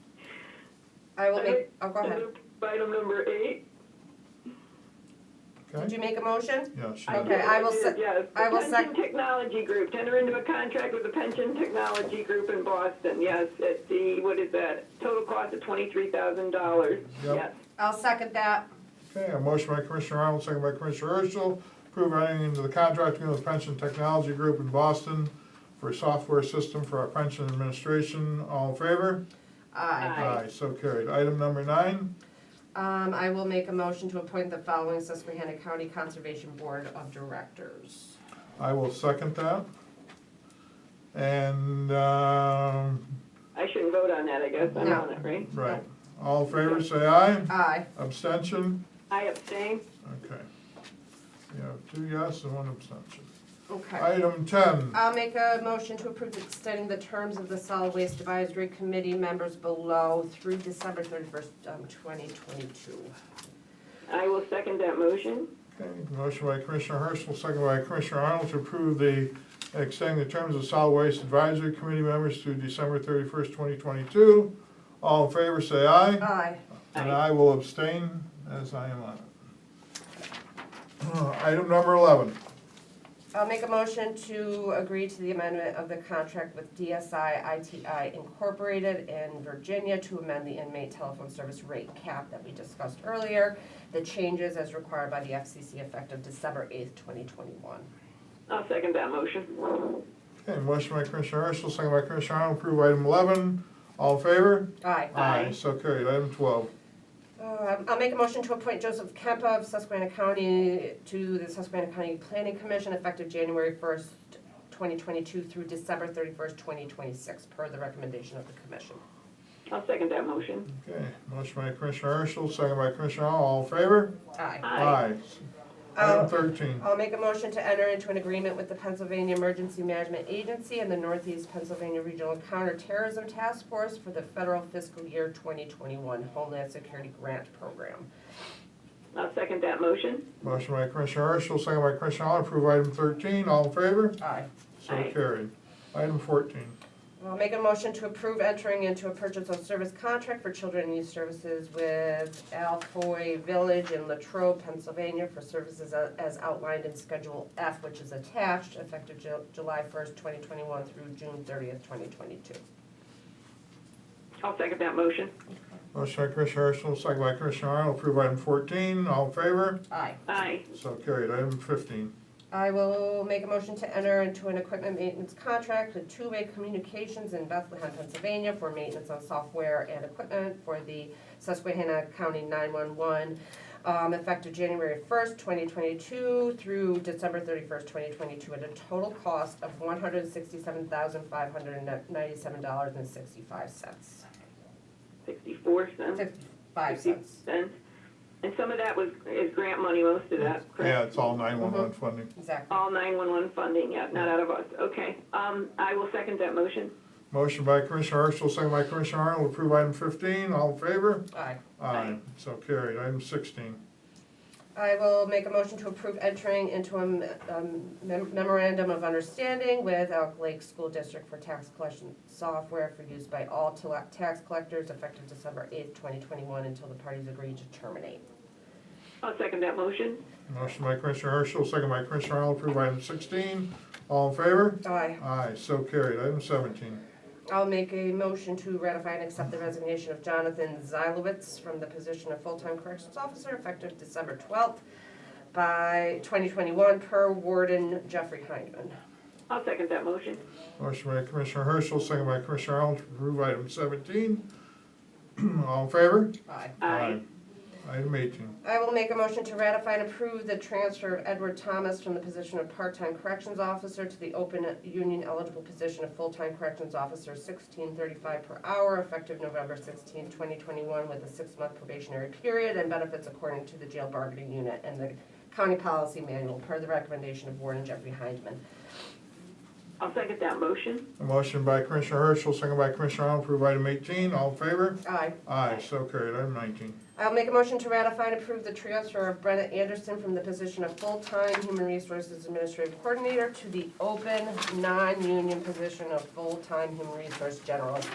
I will make, oh, go ahead. Item number eight. Did Okay, you make a motion? yeah, she Okay. did. I will sec- Yes. I will The sec- Pension Technology Group, to enter into a contract with the Pension Technology Group in Boston, yes, at the, what is that? Total cost of twenty-three thousand dollars, Yep. yes. I'll second that. Okay, a motion by Commissioner Arnold, second by Commissioner Urschel, approve entering into the contract agreement with Pension Technology Group in Boston for a software system for our pension administration. All in favor? Aye. Aye. So carried. Item number nine, Um, I will make a motion to appoint the following Susquehanna County Conservation Board of Directors. I will second that. And, um, I shouldn't vote on that, I guess, I'm No. on it, right? right, all in favor, say aye. Aye. Abstention? I abstain. Okay. We have two yes and one abstention. Okay. Item ten, I'll make a motion to approve extending the terms of the Solid Waste Advisory Committee members below through December thirty-first, um, twenty twenty-two. I will second that motion. Okay, motion by Commissioner Herschel, second by Commissioner Arnold to approve the, extending the terms of solid waste advisory committee members through December thirty-first, twenty twenty-two. All in favor, say aye. Aye. And I will abstain as I am on it. Item number eleven, I'll make a motion to agree to the amendment of the contract with DSI ITI Incorporated in Virginia to amend the inmate telephone service rate cap that we discussed earlier. The changes as required by the FCC effective December eighth, twenty twenty-one. I'll second that motion. okay, motion by Commissioner Herschel, second by Commissioner Arnold, approve item eleven. All in favor? Aye. Aye. So carried. Item twelve, Um, I'll make a motion to appoint Joseph Kempa of Susquehanna County to the Susquehanna County Planning Commission effective January first, twenty twenty-two through December thirty-first, twenty twenty-six, per the recommendation of the commission. I'll second that motion. okay, motion by Commissioner Herschel, second by Commissioner Arnold, all in favor? Aye. Aye. Item Um, thirteen, I'll make a motion to enter into an agreement with the Pennsylvania Emergency Management Agency and the Northeast Pennsylvania Regional Counterterrorism Task Force for the federal fiscal year 2021 Homeland Security Grant Program. I'll second that motion. motion by Commissioner Herschel, second by Commissioner Arnold, approve item thirteen, all in favor? Aye. So Aye. carried. Item fourteen, I'll make a motion to approve entering into a purchase of service contract for children and youth services with Alfoy Village in Latrobe, Pennsylvania for services a- as outlined in Schedule F, which is attached, effective Ju- July 1st, 2021 through June 30th, 2022. I'll second that motion. motion by Commissioner Herschel, second by Commissioner Arnold, approve item fourteen, all in favor? Aye. Aye. So carried. Item fifteen, I will make a motion to enter into an equipment maintenance contract with Two Way Communications in Bethlehem, Pennsylvania for maintenance on software and equipment for the Susquehanna County 911, um, effective January 1st, 2022 through December 31st, 2022, at a total cost of $167,597.65. Sixty-four cents. 65 cents, cents. And some of that was, is grant money, most of that, yeah, correct? it's all nine-one-one funding. exactly. All 911 funding, yeah, not out of us, okay. Um, I will second that motion. Motion by Commissioner Herschel, second by Commissioner Arnold, approve item fifteen, all in favor? Aye. Aye. So carried. Item sixteen, I will make a motion to approve entering into a mem- um, mem- memorandum of understanding with Elk Lake School District for tax collection software for use by all tele- tax collectors effective December eighth, twenty twenty-one, until the parties agree to terminate. I'll second that motion. motion by Commissioner Herschel, second by Commissioner Arnold, approve item sixteen, all in favor? Aye. Aye, so carried. Item seventeen. I'll make a motion to ratify and accept the resignation of Jonathan Zylowitz from the position of full-time corrections officer effective December twelfth by twenty twenty-one per warden Jeffrey Hindman. I'll second that motion. Motion by Commissioner Herschel, second by Commissioner Arnold to approve item seventeen. All in favor? Aye. Aye. Item eighteen. I will make a motion to ratify and approve the transfer of Edward Thomas from the position of part-time corrections officer to the open union eligible position of full-time corrections officer sixteen thirty-five per hour effective November sixteenth, twenty twenty-one with a six-month probationary period and benefits according to the jail bargaining unit and the county policy manual per the recommendation of Warden Jeffrey Hindman. I'll second that motion. A motion by Commissioner Herschel, second by Commissioner Arnold, to approve item eighteen. All in favor? Aye. Aye, so carried. Item nineteen. I'll make a motion to ratify and approve the transfer of Brenna Anderson from the position of full-time Human Resources Administrative Coordinator to the open, non-union position of full-time Human Resource General